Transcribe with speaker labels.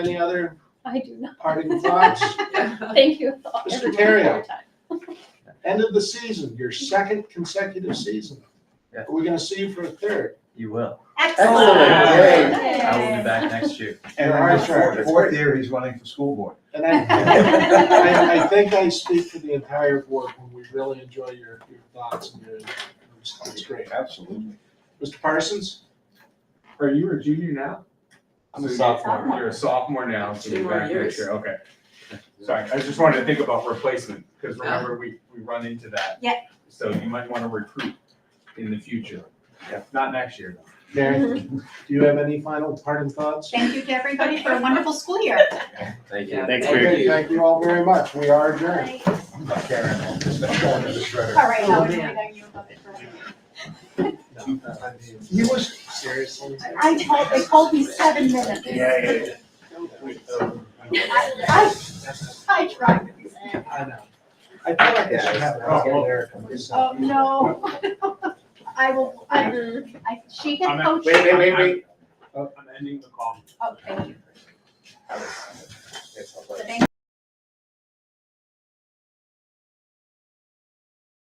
Speaker 1: Any other
Speaker 2: I do not.
Speaker 1: parting thoughts?
Speaker 2: Thank you.
Speaker 1: Mr.
Speaker 2: everyone, for
Speaker 1: Terrio.
Speaker 2: your time.
Speaker 1: End of the season, your second consecutive season.
Speaker 3: Yeah.
Speaker 1: We're gonna see you for a third.
Speaker 3: You will.
Speaker 4: Excellent,
Speaker 2: great.
Speaker 3: I will be back next year.
Speaker 5: And
Speaker 1: You're
Speaker 5: I'm
Speaker 1: on track.
Speaker 5: fourth, fourth year, he's running for school board.
Speaker 1: And I, I, I think I speak for the entire board when we really enjoy your, your thoughts and your, that's great.
Speaker 5: Absolutely.
Speaker 1: Mr. Parsons?
Speaker 6: Are you a junior now?
Speaker 3: I'm a
Speaker 6: So you-
Speaker 3: sophomore.
Speaker 6: You're a sophomore now, so
Speaker 4: Two
Speaker 6: you're
Speaker 4: more
Speaker 6: back
Speaker 4: years.
Speaker 6: next year, okay. Sorry, I just wanted to think about replacement, because remember, we, we run into that.
Speaker 4: Yeah.
Speaker 6: So you might want to recruit in the future,
Speaker 3: Yeah.
Speaker 6: not next year. though.
Speaker 1: Mary, do you have any final parting thoughts?
Speaker 7: Thank you to everybody for a wonderful school year.
Speaker 3: Thank you.
Speaker 4: Yeah.
Speaker 8: Thanks,
Speaker 4: Thank
Speaker 8: Mary.
Speaker 1: Okay, Thank you all very much. We are adjourned.
Speaker 5: Karen, just going to the shredder.
Speaker 7: All right, Howard,
Speaker 4: Yeah.
Speaker 7: I know you love it forever.
Speaker 1: He was. Seriously?
Speaker 7: I told, they told me seven minutes.
Speaker 5: Yeah, yeah, yeah.
Speaker 7: I, I, I tried to be sad.
Speaker 1: I know. I feel like I should have it out there.
Speaker 7: Oh, no. I will, I, I, she can
Speaker 6: I'm at-
Speaker 7: coach.
Speaker 8: Wait, wait, wait, wait.
Speaker 6: I'm ending the call.
Speaker 7: Oh, thank you.